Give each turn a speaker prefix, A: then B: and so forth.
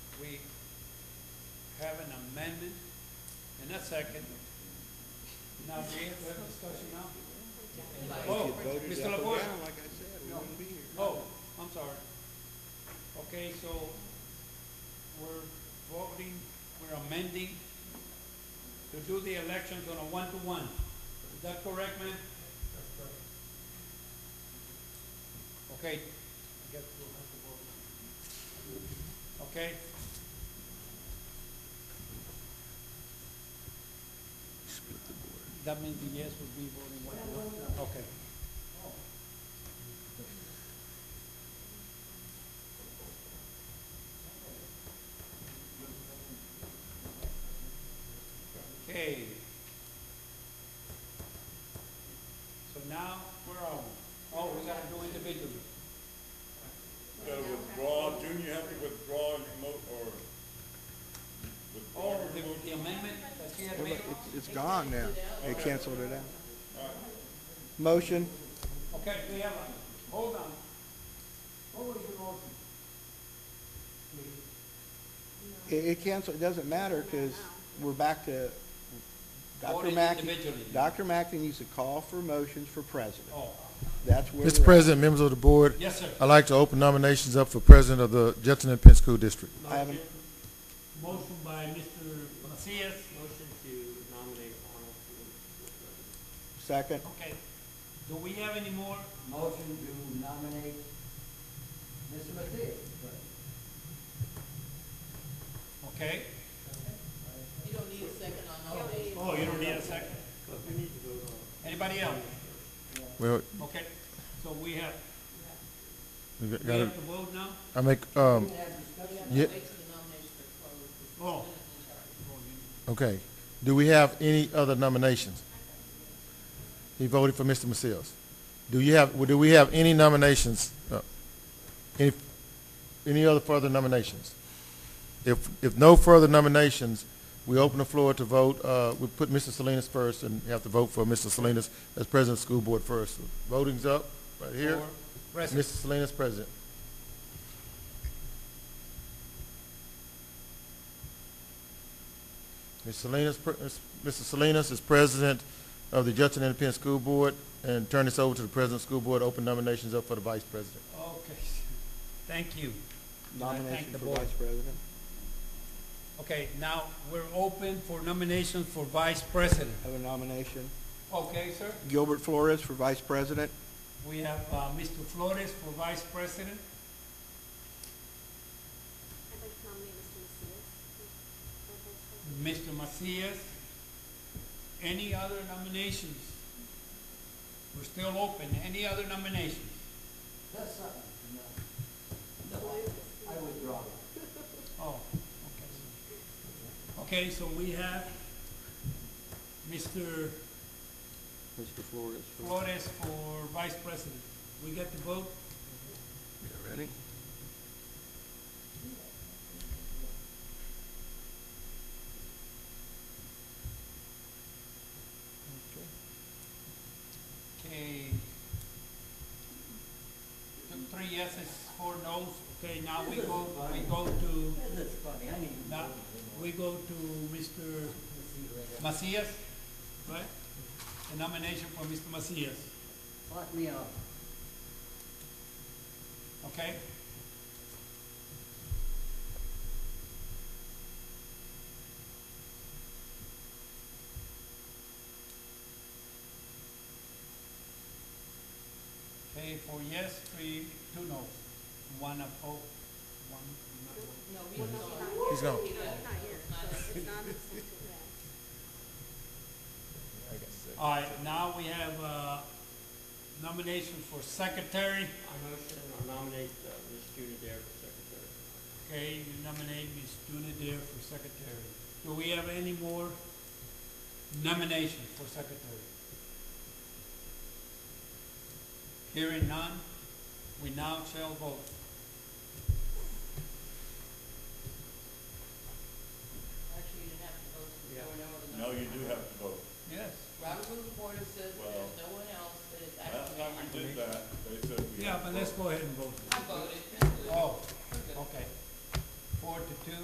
A: have an amendment and a second. Now, do we have to have discussion now? Oh, Mr. LaFois?
B: like I said, we wouldn't be here.
A: Oh, I'm sorry. Okay, so we're voting, we're amending to do the elections on a one-to-one. Is that correct, ma'am? Okay. I guess we'll have to vote. Okay,
B: Split the board.
A: that means the yes would be voting one-to-one. Okay. Okay. So now, where are we? Oh, we gotta do individually.
C: You gotta withdraw, Junior, you have to withdraw and remote, or
A: Oh,
C: withdraw your
A: the
C: remote.
A: the amendment that she had made?
B: It's gone now. They canceled it out. Motion?
A: Okay, we have a, hold on. What was your motion?
B: It, it canceled, it doesn't matter, because we're back to Dr.
A: Voting
B: Mack.
A: individually.
B: Dr. Mackin used to call for motions for president.
A: Oh,
B: That's where.
D: Mr.
B: we're at.
D: President, members of the board,
A: yes, sir.
D: I'd like to open nominations up for president of the Jefferson and Penn School District.
B: I haven't-
A: Motion by Mr. Macias.
E: Motion to nominate Arnold for
B: Second,
A: Okay, do we have any more?
F: Motion to nominate Mr. Mathias.
A: Okay.
G: You don't need a second on all these.
A: Oh, you don't need a second.
E: We need to vote on.
A: Anybody else?
D: Well,
A: Okay, so we have,
D: we
A: we
D: gotta,
A: have to vote now?
D: I make,
G: Wait
D: um, yeah,
G: till the nominations are closed.
A: Oh.
D: okay. Do we have any other nominations? He voted for Mr. Macias. Do you have, well, do we have any nominations? uh, Any, any other further nominations? If, if no further nominations, we open the floor to vote, uh, we put Mr. Salinas first and have to vote for Mr. Salinas as president of the school board first. Voting's up, right here.
A: Or President.
D: Mr. Salinas, President. Mr. Salinas, pre- Mr. Salinas is President of the Judson Independent School Board, and turn this over to the President of the School Board, open nominations up for the Vice President.
A: Okay, thank you. And I thank
B: nomination
A: the
B: for
A: board.
B: vice president.
A: Okay, now, we're open for nominations for vice president.
B: Have a nomination.
A: Okay, sir.
B: Gilbert Flores for vice president.
A: We have uh, Mr. Flores for vice president.
H: I'd like to nominate Mr. Macias. for vice president.
A: Mr. Macias. Any other nominations? We're still open. Any other nominations?
F: That's something, no. No, I withdraw that.
A: Oh, okay. Okay, so we have Mr.
B: Mr. Flores. for-
A: Flores for vice president. We get the vote?
B: Ready?
A: Okay. Th- Three yeses, four noes. Okay, now we go, we go to,
F: This is funny, I need to
A: now,
F: vote anymore.
A: we go to Mr.
F: Let's see right there.
A: Macias, right? The nomination for Mr. Macias,
F: Lock me up.
A: okay? Okay, four yes, three, two no, one opposed, one not.
G: No, we don't.
D: He's gone.
H: He's not here, so it's not listening to that.
A: All right, now we have, uh, nomination for secretary.
E: I motion or nominate uh, Ms. Judy Dare for secretary.
A: Okay, you nominate Ms. Juna Dare for secretary. Do we have any more nominations for secretary? Hearing none, we now shall vote. Oh,